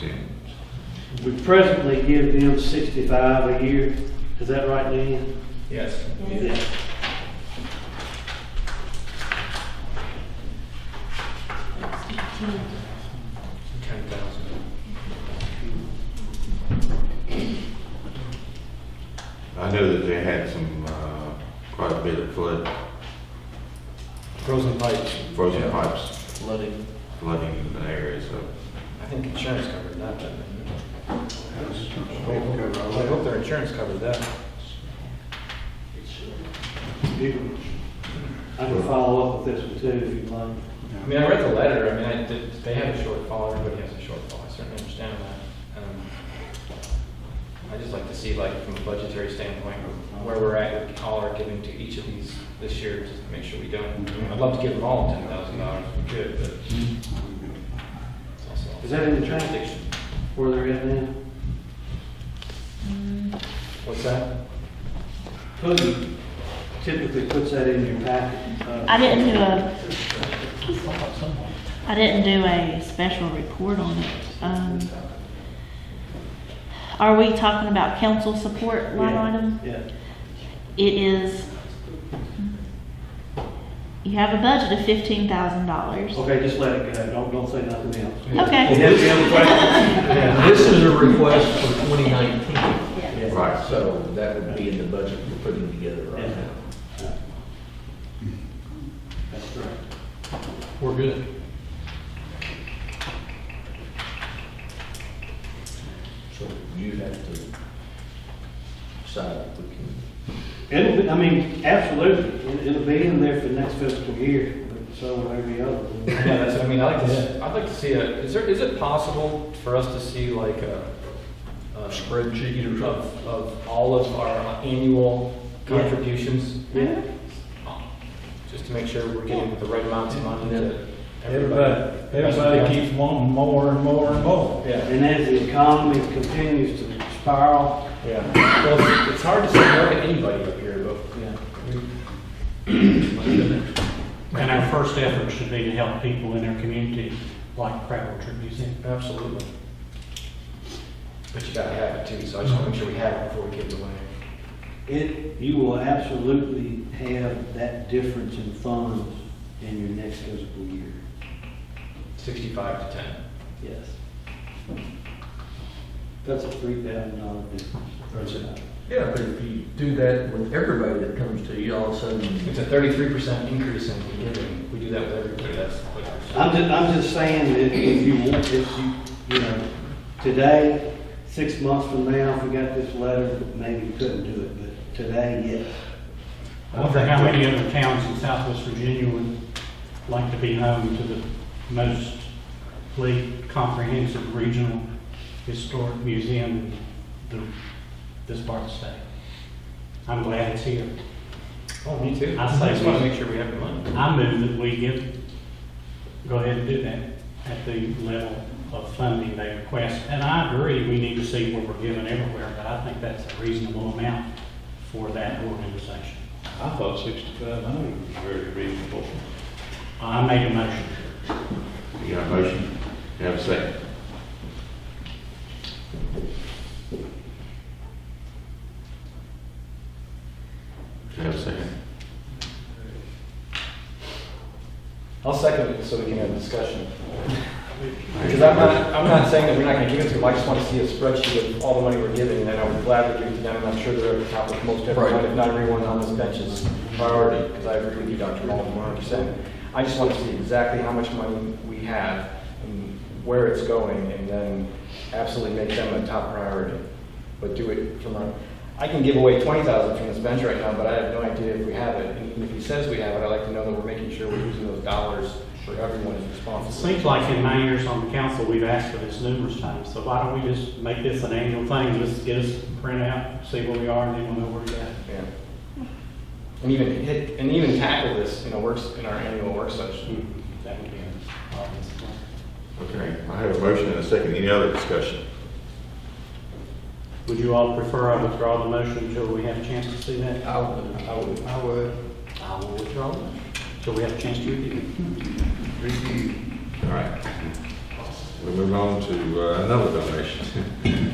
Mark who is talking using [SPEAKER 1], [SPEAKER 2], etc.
[SPEAKER 1] We presently give them sixty-five a year, is that right, Leanne?
[SPEAKER 2] Yes.
[SPEAKER 1] Yeah.
[SPEAKER 2] Ten thousand.
[SPEAKER 3] I know that they had some, uh, quite a bit of flood,
[SPEAKER 2] Frozen pipes.
[SPEAKER 3] frozen
[SPEAKER 2] Yeah.
[SPEAKER 3] pipes
[SPEAKER 2] Flooding.
[SPEAKER 3] flooding in the area, so.
[SPEAKER 2] I think insurance covered that, didn't it? I hope their insurance covered that.
[SPEAKER 1] I can follow up with this one too, if you'd like.
[SPEAKER 2] I mean, I read the letter, I mean, I did, they have a shortfall, everybody has a shortfall, I certainly understand that. Um, I just like to see, like, from a budgetary standpoint, where we're at, with all our giving to each of these this year, just to make sure we don't, I mean, I'd love to give them all ten thousand dollars if we could, but. it's also-
[SPEAKER 1] Is that in the track? Where they're at now?
[SPEAKER 2] What's that?
[SPEAKER 1] Hoodie typically puts that in your packet. uh,
[SPEAKER 4] I didn't do a, I didn't do a special report on it. Um, Are we talking about council support line
[SPEAKER 1] yeah,
[SPEAKER 4] item?
[SPEAKER 1] Yeah.
[SPEAKER 4] It is, you have a budget of fifteen thousand dollars.
[SPEAKER 1] Okay, just let it go, don't, don't say nothing else.
[SPEAKER 4] Okay.
[SPEAKER 1] You have the other question?
[SPEAKER 5] Yeah, This is a request for 2019,
[SPEAKER 3] Right.
[SPEAKER 5] so that would be in the budget we're putting together right
[SPEAKER 1] Yeah.
[SPEAKER 5] now.
[SPEAKER 1] That's correct.
[SPEAKER 5] We're good. So you have to decide if we can,
[SPEAKER 1] It'll, be- I mean, absolutely, It- it'll be in there for next fiscal year, but so will every other. one.
[SPEAKER 2] Yeah, that's, I mean, I'd like to, s- I'd like to see a, is there, is it possible for us to see like a? a Spreadsheet or Of, of all of our annual contributions?
[SPEAKER 1] Yeah.
[SPEAKER 2] Just to make sure we're getting the right amounts of money to everybody.
[SPEAKER 6] Everybody, everybody keeps wanting more and more and more.
[SPEAKER 2] Yeah,
[SPEAKER 1] And as the economy continues to spiral,
[SPEAKER 2] yeah. Well, it's- it's hard to say no to anybody up here, but.
[SPEAKER 1] yeah,
[SPEAKER 6] And our first effort should be to help people in their community, like Crabtree Museum.
[SPEAKER 2] Absolutely. But you gotta have it too, so I just wanna make sure we have it before we give it away.
[SPEAKER 1] it, you will absolutely have that difference in funds in your next fiscal year.
[SPEAKER 2] Sixty-five to ten.
[SPEAKER 1] Yes. That's a three thousand dollar difference.
[SPEAKER 5] yeah, but if you do that with everybody that comes to you, all of a sudden,
[SPEAKER 2] It's a thirty-three percent increase in giving. We do that with everybody, that's like.
[SPEAKER 1] I'm just, I'm just saying that if you want, if you, you know, today, six months from now, if we got this letter, maybe we couldn't do it, but today, yes.
[SPEAKER 6] I wonder how many other towns in southwest Virginia would like to be home to the most complete, comprehensive regional historic museum in the- this part of the state. I'm glad it's here.
[SPEAKER 2] Oh, me too.
[SPEAKER 6] I say
[SPEAKER 2] just want to
[SPEAKER 6] we-
[SPEAKER 2] make sure we have the money.
[SPEAKER 6] I move that we give, go ahead and do that at the level of funding they request. And I agree, we need to see what we're given everywhere, but I think that's a reasonable amount for that organization.
[SPEAKER 7] I thought sixty-five hundred was very reasonable.
[SPEAKER 6] I make a motion.
[SPEAKER 3] You got a motion? You have a second? You have a second?
[SPEAKER 2] I'll second it so we can have a discussion. Because I'm not, I'm not saying that we're not going to give it to them, I just want to see a spreadsheet of all the money we're giving, and I would gladly give it to them, and I'm sure they're at the top of most everyone,
[SPEAKER 5] Right.
[SPEAKER 2] if not everyone on this bench is priority, because I agree with you, Dr. Baldwin, one hundred percent. I just want to see exactly how much money we have, and where it's going, and then absolutely make them a top priority. But do it from a, I can give away twenty thousand from this bench right now, but I have no idea if we have it, and even if he says we have it, I'd like to know that we're making sure we're using those dollars for everyone is
[SPEAKER 6] It
[SPEAKER 2] responsible.
[SPEAKER 6] seems like in my years on the council, we've asked for this numerous times, so why don't we just make this an annual thing? Just get us a printout, see where we are, and then we'll know where we're at.
[SPEAKER 2] Yeah. And even hit, and even tackle this in a works, in our annual work session.
[SPEAKER 6] That would be a obvious one.
[SPEAKER 3] Okay, I have a motion and a second. Any other discussion?
[SPEAKER 6] Would you all prefer I withdraw the motion until we have a chance to see that?
[SPEAKER 5] I
[SPEAKER 2] Uh,
[SPEAKER 5] would, I would
[SPEAKER 2] I would.
[SPEAKER 6] I will withdraw it. So uh, we have a chance to review it.
[SPEAKER 3] All right. We move on to uh, another donation.